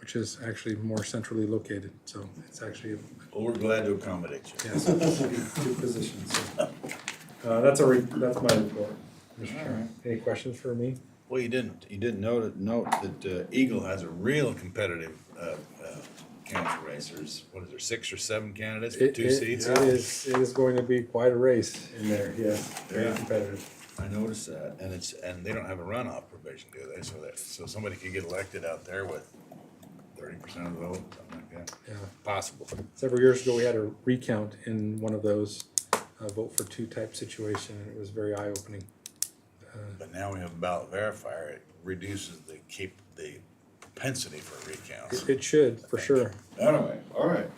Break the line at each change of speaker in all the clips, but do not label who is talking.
which is actually more centrally located, so it's actually,
Well, we're glad to accommodate you.
yes, two positions. so. Uh, that's a, re- that's my report, Mr. Chairman.
Any questions for me?
Well, you didn't, you didn't note, note that uh, Eagle has a real competitive, uh, uh, council race. There's, what is there, six or seven candidates for
It-
two
it-
seats?
It is, it is going to be quite a race in there, yes, very
Yeah.
competitive.
I noticed that, and it's, and they don't have a runoff provision, do they? So that, so somebody could get elected out there with thirty percent of the vote, something like that.
Yeah.
Possible.
Several years ago, we had a recount in one of those uh, vote for two type situation, and it was very eye opening.
But now we have ballot verifier, it reduces the keep, the propensity for recounts.
It should, for sure.
Anyway, all right.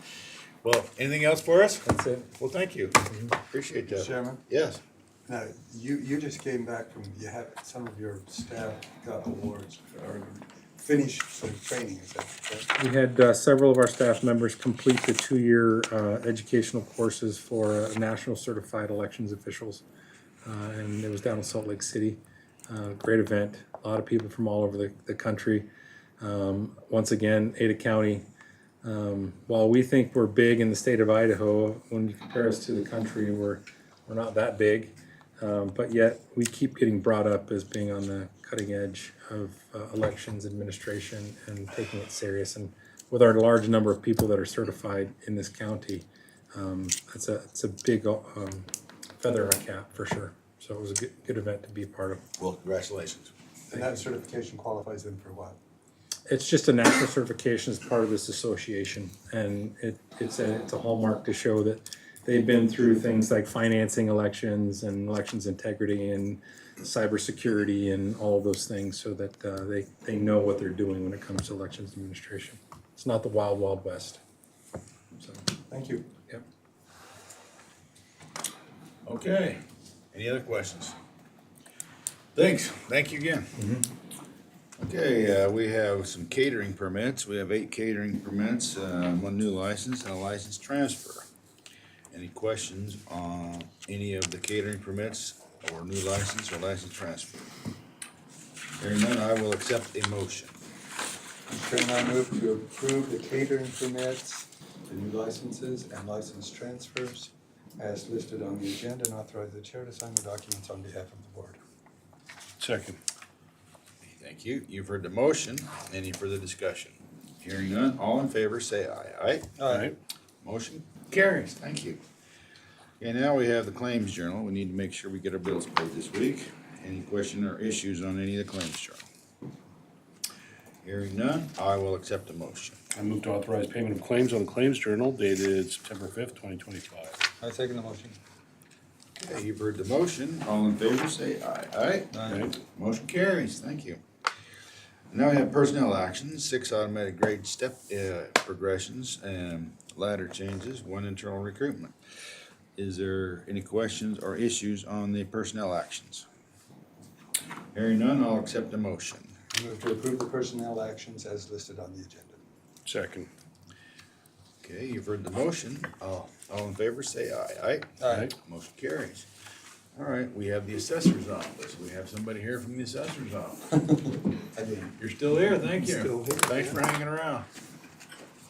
Well, anything else for us?
That's it.
Well, thank you. Appreciate that.
Chairman?
Yes.
Now, you, you just came back from, you had, some of your staff got awards or finished some training, is that correct?
We had uh, several of our staff members complete the two-year uh, educational courses for uh, national certified elections officials. Uh, And it was down in Salt Lake City. Uh, Great event, a lot of people from all over the, the country. Um, Once again, Ada County, um, while we think we're big in the state of Idaho, when you compare us to the country, we're, we're not that big. Um, But yet, we keep getting brought up as being on the cutting edge of uh, elections administration and taking it serious. And with our large number of people that are certified in this county, um, that's a, it's a big um, feather in our cap for sure. So it was a good, good event to be a part of.
Well, congratulations.
And that certification qualifies them for what?
It's just a national certification as part of this association, and it, it's a, it's a hallmark to show that they've been through things like financing elections and elections integrity and cybersecurity and all of those things, so that, uh, they, they know what they're doing when it comes to elections administration. It's not the wild, wild west. So,
Thank you.
yep.
Okay. Any other questions? Thanks. Thank you again. Okay, uh, we have some catering permits. We have eight catering permits, uh, one new license and a license transfer. Any questions on any of the catering permits or new license or license transfer? Hearing none, I will accept a motion.
Mr. Chairman, I move to approve the catering permits, the new licenses and license transfers as listed on the agenda and authorize the chair to sign the documents on behalf of the board.
Second. Thank you. You've heard the motion. Any further discussion? Hearing none, all in favor, say aye. Aye?
Aye.
Motion carries. Thank you. And now we have the claims journal. We need to make sure we get our bills paid this week. Any question or issues on any of the claims journal? Hearing none, I will accept a motion.
I move to authorize payment of claims on the claims journal dated September fifth, twenty twenty-five.
I second the motion.
Okay, you've heard the motion. All in favor, say aye. Aye?
Aye.
Motion carries, thank you. Now we have personnel actions, six automatic grade step uh, progressions and ladder changes, one internal recruitment. Is there any questions or issues on the personnel actions? Hearing none, I'll accept the motion.
I move to approve the personnel actions as listed on the agenda.
Second.
Okay, you've heard the motion. All all in favor, say aye. Aye?
Aye.
Motion carries. All right, we have the assessor's office. We have somebody here from the assessor's office.
I did.
You're still here, thank you.
Still here,
Thanks for hanging around.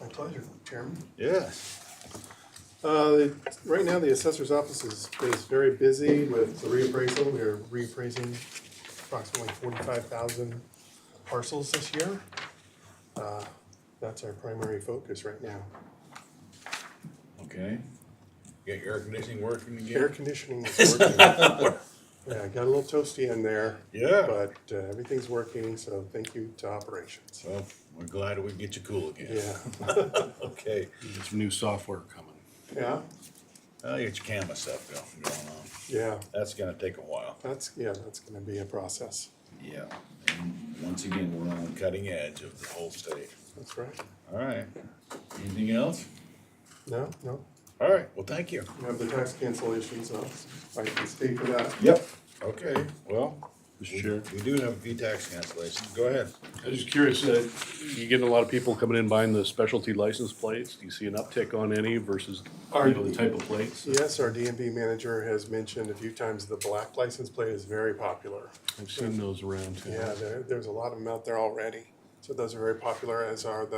My pleasure, Chairman.
Yes.
Uh, the- Right now, the assessor's office is, is very busy with the reappraisal. We are reappraising approximately forty-five thousand parcels this year. Uh, That's our primary focus right now.
Okay. Get your air conditioning working
Air
again?
conditioning is working. Yeah, got a little toasty in there.
Yeah.
But uh, everything's working, so thank you to operations.
Well, we're glad we get you cool again.
Yeah,
Okay.
Get some new software coming.
yeah,
I'll get your camera stuff go- going on.
yeah.
That's gonna take a while.
That's, yeah, that's gonna be a process.
Yeah. And once again, we're on the cutting edge of the whole state.
That's right.
All right. Anything else?
No, no,
All right, well, thank you.
We have the tax cancellations, so I can speak for that.
Yep. Okay, well,
Mr. Chair,
we do have a few tax cancellations. Go ahead.
I was just curious, uh, you getting a lot of people coming in buying the specialty license plates? Do you see an uptick on any versus, you know, the type of plates?
Yes, our DMV manager has mentioned a few times the black license plate is very popular.
I've seen those around too.
Yeah, there, there's a lot of them out there already. So those are very popular, as are the